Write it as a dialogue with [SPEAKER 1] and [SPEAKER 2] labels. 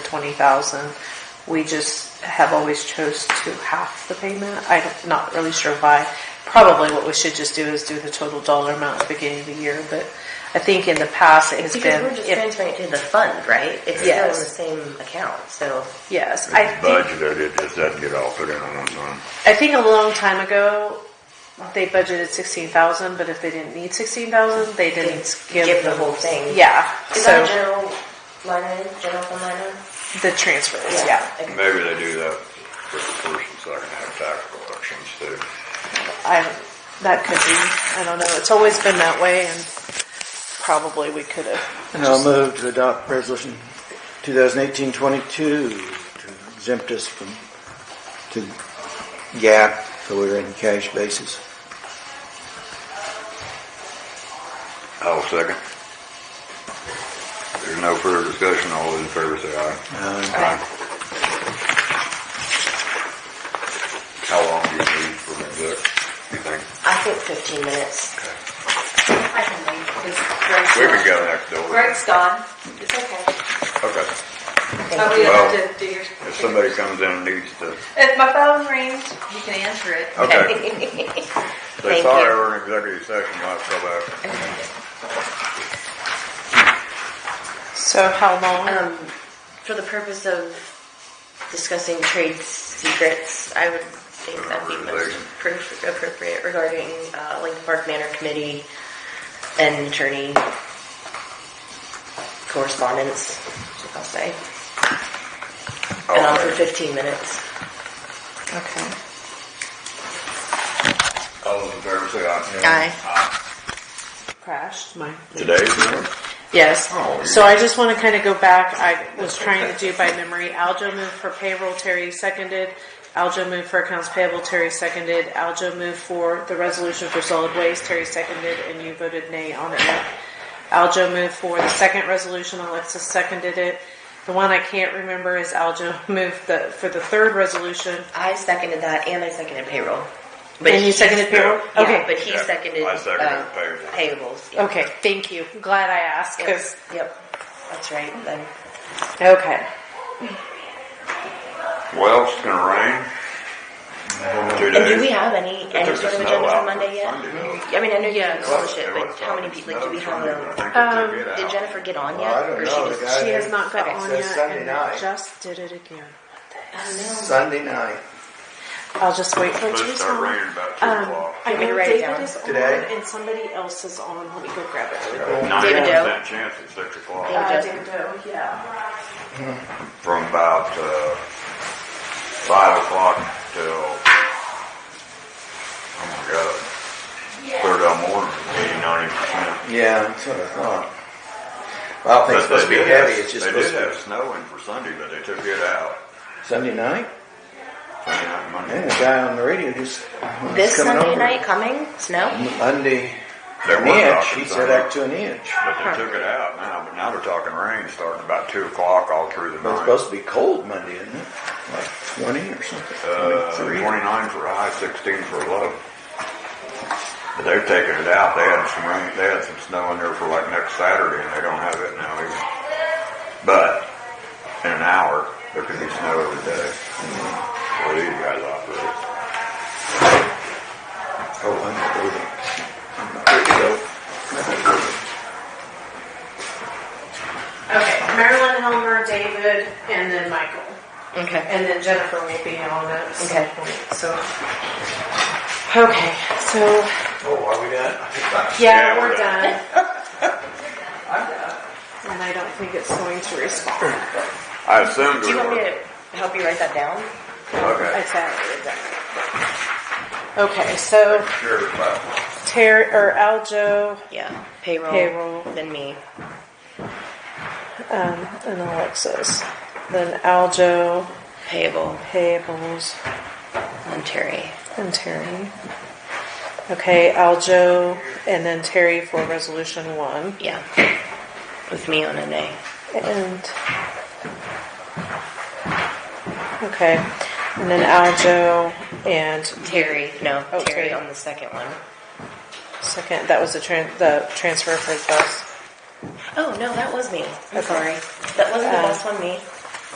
[SPEAKER 1] twenty thousand. We just have always chose to half the payment. I'm not really sure why. Probably what we should just do is do the total dollar amount at the beginning of the year, but I think in the past it has been.
[SPEAKER 2] Because we're just
[SPEAKER 1] if-
[SPEAKER 2] transferring it to the fund, right? It's still in the
[SPEAKER 1] Yes.
[SPEAKER 2] same account, so.
[SPEAKER 1] Yes, I
[SPEAKER 3] It's
[SPEAKER 1] think
[SPEAKER 3] budgeted, it just doesn't get altered in one month.
[SPEAKER 1] I think a long time ago, they budgeted sixteen thousand, but if they didn't need sixteen thousand, they didn't give,
[SPEAKER 2] give the
[SPEAKER 1] them-
[SPEAKER 2] whole thing.
[SPEAKER 1] Yeah,
[SPEAKER 2] Is that a
[SPEAKER 1] so
[SPEAKER 2] general line item, general fund line item?
[SPEAKER 1] the transfers. Yeah,
[SPEAKER 2] Okay.
[SPEAKER 3] Maybe they do that for the first and second half tax collections too.
[SPEAKER 1] I that could be. I don't know. It's always been that way, and probably we could have.
[SPEAKER 4] And I'll move to adopt resolution 2018-22 to exempt us from, to gap, so we're in cash basis.
[SPEAKER 3] I'll second. There's no further discussion, all those in favor say aye. Aye. How long do you need for me, Vic? You think?
[SPEAKER 2] I think fifteen minutes.
[SPEAKER 5] I can leave, because Greg's
[SPEAKER 3] We can
[SPEAKER 5] gone.
[SPEAKER 3] go next door.
[SPEAKER 5] Greg's gone. It's okay.
[SPEAKER 3] Okay.
[SPEAKER 5] Oh, we
[SPEAKER 3] Well,
[SPEAKER 5] don't have to do yours.
[SPEAKER 3] If somebody comes in and needs to,
[SPEAKER 5] If my phone rings, you can answer it.
[SPEAKER 3] okay. They
[SPEAKER 2] Thank
[SPEAKER 3] thought
[SPEAKER 2] you.
[SPEAKER 3] they were in executive session, I'll go back.
[SPEAKER 1] So how long?
[SPEAKER 2] Um, for the purpose of discussing trade secrets, I would think that'd be most
[SPEAKER 3] Organization.
[SPEAKER 2] appro- appropriate regarding, uh, Lincoln Park Manor Committee and attorney correspondence, I'll say. And I'll do
[SPEAKER 3] All in-
[SPEAKER 2] fifteen minutes.
[SPEAKER 1] okay.
[SPEAKER 3] all those in favor say aye.
[SPEAKER 2] Aye.
[SPEAKER 1] Crashed my.
[SPEAKER 3] Today's number?
[SPEAKER 1] Yes.
[SPEAKER 3] Oh, you-
[SPEAKER 1] So I just want to kind of go back. I was trying to do by memory. Aljo moved for payroll, Terry seconded. Aljo moved for accounts payable, Terry seconded. Aljo moved for the resolution for solid waste, Terry seconded, and you voted nay on it. Aljo moved for the second resolution, Alexis seconded it. The one I can't remember is Aljo moved the, for the third resolution.
[SPEAKER 2] I seconded that, and I seconded payroll. But
[SPEAKER 1] And you
[SPEAKER 2] he-
[SPEAKER 1] seconded payroll?
[SPEAKER 2] Yeah,
[SPEAKER 1] Okay,
[SPEAKER 2] but he
[SPEAKER 3] Yeah,
[SPEAKER 2] seconded,
[SPEAKER 3] I seconded
[SPEAKER 2] uh,
[SPEAKER 3] payroll.
[SPEAKER 2] payables. yeah.
[SPEAKER 1] okay, thank you. Glad I asked, 'cause-
[SPEAKER 2] Yep, that's right. Then
[SPEAKER 1] okay.
[SPEAKER 3] Well, it's gonna rain. Two
[SPEAKER 2] And do
[SPEAKER 3] days.
[SPEAKER 2] we have any,
[SPEAKER 3] It
[SPEAKER 2] any
[SPEAKER 3] took the
[SPEAKER 2] sort of
[SPEAKER 3] snow
[SPEAKER 2] agenda
[SPEAKER 3] out
[SPEAKER 2] for
[SPEAKER 3] on
[SPEAKER 2] Monday yet?
[SPEAKER 3] Sunday, though.
[SPEAKER 2] I mean, I know you have all the
[SPEAKER 3] It
[SPEAKER 2] shit,
[SPEAKER 3] was
[SPEAKER 2] like, how many
[SPEAKER 3] on
[SPEAKER 2] people, like, do we
[SPEAKER 3] snow
[SPEAKER 2] have
[SPEAKER 3] Sunday, but
[SPEAKER 2] a,
[SPEAKER 3] I think they took it
[SPEAKER 2] did
[SPEAKER 3] out.
[SPEAKER 2] Jennifer get on
[SPEAKER 4] Well, I
[SPEAKER 2] yet?
[SPEAKER 4] don't
[SPEAKER 2] or
[SPEAKER 4] know.
[SPEAKER 2] she
[SPEAKER 4] The
[SPEAKER 2] just-
[SPEAKER 4] guy-
[SPEAKER 1] She has not got
[SPEAKER 2] Okay,
[SPEAKER 1] on
[SPEAKER 4] so it's
[SPEAKER 1] yet,
[SPEAKER 4] Sunday
[SPEAKER 1] and I
[SPEAKER 4] night.
[SPEAKER 1] just did it again.
[SPEAKER 4] Sunday night.
[SPEAKER 1] I'll just wait for it to
[SPEAKER 3] Supposed to start
[SPEAKER 1] respond.
[SPEAKER 3] raining about two
[SPEAKER 1] Um,
[SPEAKER 3] o'clock.
[SPEAKER 1] I
[SPEAKER 2] me to
[SPEAKER 1] know
[SPEAKER 2] write it
[SPEAKER 1] David
[SPEAKER 2] down?
[SPEAKER 1] is on
[SPEAKER 4] Today?
[SPEAKER 1] and somebody else is on. Let me go grab it.
[SPEAKER 3] Ninety
[SPEAKER 2] David
[SPEAKER 3] percent chance at six o'clock.
[SPEAKER 2] Yeah.
[SPEAKER 1] Uh,
[SPEAKER 2] David
[SPEAKER 1] Doe, yeah.
[SPEAKER 3] From about, uh, five o'clock till, oh my God, third of morning, eighty, ninety percent.
[SPEAKER 4] Yeah, that's what I thought. Well, I think it's supposed to be
[SPEAKER 3] But they did have-
[SPEAKER 4] heavy, it's just
[SPEAKER 3] They
[SPEAKER 4] supposed
[SPEAKER 3] did have
[SPEAKER 4] to
[SPEAKER 3] snow in for Sunday, but they took it out.
[SPEAKER 4] be Sunday night?
[SPEAKER 3] Sunday night,
[SPEAKER 4] And
[SPEAKER 3] Monday.
[SPEAKER 4] the guy on the radio just, when
[SPEAKER 2] This
[SPEAKER 4] he's coming
[SPEAKER 2] Sunday
[SPEAKER 4] over,
[SPEAKER 2] night coming,
[SPEAKER 1] Mm-hmm.
[SPEAKER 2] snow?
[SPEAKER 4] Monday,
[SPEAKER 3] They
[SPEAKER 4] an
[SPEAKER 3] were
[SPEAKER 4] inch,
[SPEAKER 3] talking
[SPEAKER 4] he said
[SPEAKER 3] Sunday.
[SPEAKER 4] up to an inch.
[SPEAKER 3] But they took it out now, but now they're talking rain starting about two o'clock all through the
[SPEAKER 4] But it's
[SPEAKER 3] night.
[SPEAKER 4] supposed to be cold Monday, isn't it? Like twenty or something. Oh,
[SPEAKER 3] Uh,
[SPEAKER 4] 23.
[SPEAKER 3] twenty-nine for a high, sixteen for a low. But they're taking it out, they had some rain, they had some snow in there for like next Saturday, and they don't have it now either. But, in an hour, there could be snow every day, where these guys operate.
[SPEAKER 4] Oh, I'm not moving.
[SPEAKER 1] Okay, Marilyn, Helmer, David, and then Michael.
[SPEAKER 2] Okay.
[SPEAKER 1] And then Jennifer will be on at some
[SPEAKER 2] Okay.
[SPEAKER 1] point, so. Okay, so,
[SPEAKER 4] Oh, are we done?
[SPEAKER 1] yeah, we're done. And I don't think it's going to respond.
[SPEAKER 3] I assumed
[SPEAKER 2] Do
[SPEAKER 3] we
[SPEAKER 2] you want me
[SPEAKER 3] were.
[SPEAKER 2] to help you write that down?
[SPEAKER 1] I
[SPEAKER 3] Okay.
[SPEAKER 1] thought it was done. Okay, so
[SPEAKER 3] Sure, but
[SPEAKER 1] Terry, or Aljo,
[SPEAKER 2] Yeah, payroll.
[SPEAKER 1] Payroll.
[SPEAKER 2] Then me.
[SPEAKER 1] um, and Alexis. Then Aljo,
[SPEAKER 2] Payable.
[SPEAKER 1] Payables,
[SPEAKER 2] And Terry.
[SPEAKER 1] and Terry. Okay, Aljo, and then Terry for resolution one.
[SPEAKER 2] Yeah. With me on a nay.
[SPEAKER 1] And. Okay, and then Aljo and
[SPEAKER 2] Terry, no,
[SPEAKER 1] Oh,
[SPEAKER 2] Terry
[SPEAKER 1] Terry.
[SPEAKER 2] on the second one.
[SPEAKER 1] second, that was the tran, the transfer for the bus.
[SPEAKER 2] Oh, no, that was me. I'm
[SPEAKER 1] Okay.
[SPEAKER 2] sorry. That wasn't the
[SPEAKER 1] Uh,
[SPEAKER 2] last one, me.